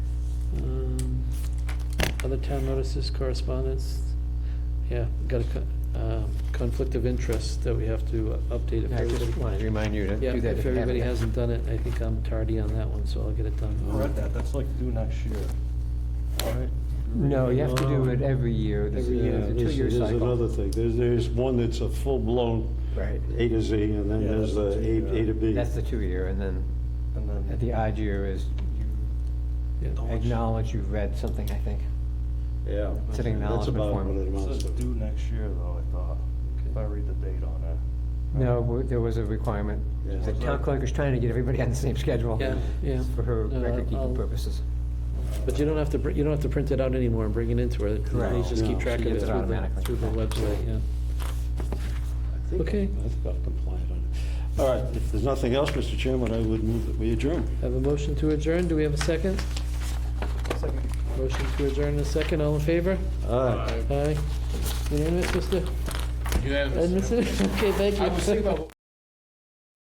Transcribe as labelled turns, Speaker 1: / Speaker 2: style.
Speaker 1: Um, other town notices, correspondence? Yeah, got a co- um, conflict of interest that we have to uh, update if
Speaker 2: I just
Speaker 1: everybody.
Speaker 2: wanted to remind you to
Speaker 1: Yeah,
Speaker 2: do that.
Speaker 1: if
Speaker 2: you haven't.
Speaker 1: everybody hasn't done it, I think I'm tardy on that one, so I'll get it
Speaker 3: I
Speaker 1: done.
Speaker 3: read that, that's like due next year, right?
Speaker 2: No, you have to do it every year. There's
Speaker 1: Every
Speaker 2: a-
Speaker 1: year.
Speaker 4: Yeah,
Speaker 2: there's a
Speaker 4: this
Speaker 2: two-year
Speaker 4: is
Speaker 2: cycle.
Speaker 4: another thing. There's, there's one that's a full-blown
Speaker 2: Right.
Speaker 4: A to Z, and then
Speaker 3: Yeah,
Speaker 4: there's the
Speaker 3: that's the two,
Speaker 4: A, A to B.
Speaker 2: That's the two-year, and then
Speaker 3: And
Speaker 2: at
Speaker 3: then,
Speaker 2: the odd year is you
Speaker 1: Yeah.
Speaker 2: acknowledge you've read something, I think.
Speaker 4: Yeah.
Speaker 2: It's an acknowledgement form.
Speaker 4: That's about
Speaker 3: it
Speaker 4: what it amounts
Speaker 3: says
Speaker 4: to.
Speaker 3: due next year though, I thought, if I read the date on it.
Speaker 2: No, w- there was a requirement.
Speaker 4: Yeah.
Speaker 2: The town clerk is trying to get everybody on the same schedule.
Speaker 1: Yeah, yeah.
Speaker 2: For her
Speaker 1: No, I'll-
Speaker 2: record-keeping purposes.
Speaker 1: But you don't have to, br- you don't have to print it out anymore and bring it into her.
Speaker 2: Correct.
Speaker 1: You just
Speaker 4: No,
Speaker 1: keep
Speaker 4: she
Speaker 1: track of it
Speaker 2: gets it
Speaker 1: through the,
Speaker 2: automatically.
Speaker 1: through the website, yeah.
Speaker 4: I think-
Speaker 1: Okay.
Speaker 4: I think I'm compliant on it. All right, if there's nothing else, Mr. Chairman, I would move that we adjourn.
Speaker 1: Have a motion to adjourn, do we have a second? Motion to adjourn in a second, all in favor?
Speaker 4: Aye.
Speaker 1: Aye. Unanimous, Mr.
Speaker 5: You have.
Speaker 1: Edmondson? Okay, thank you.
Speaker 5: I was thinking about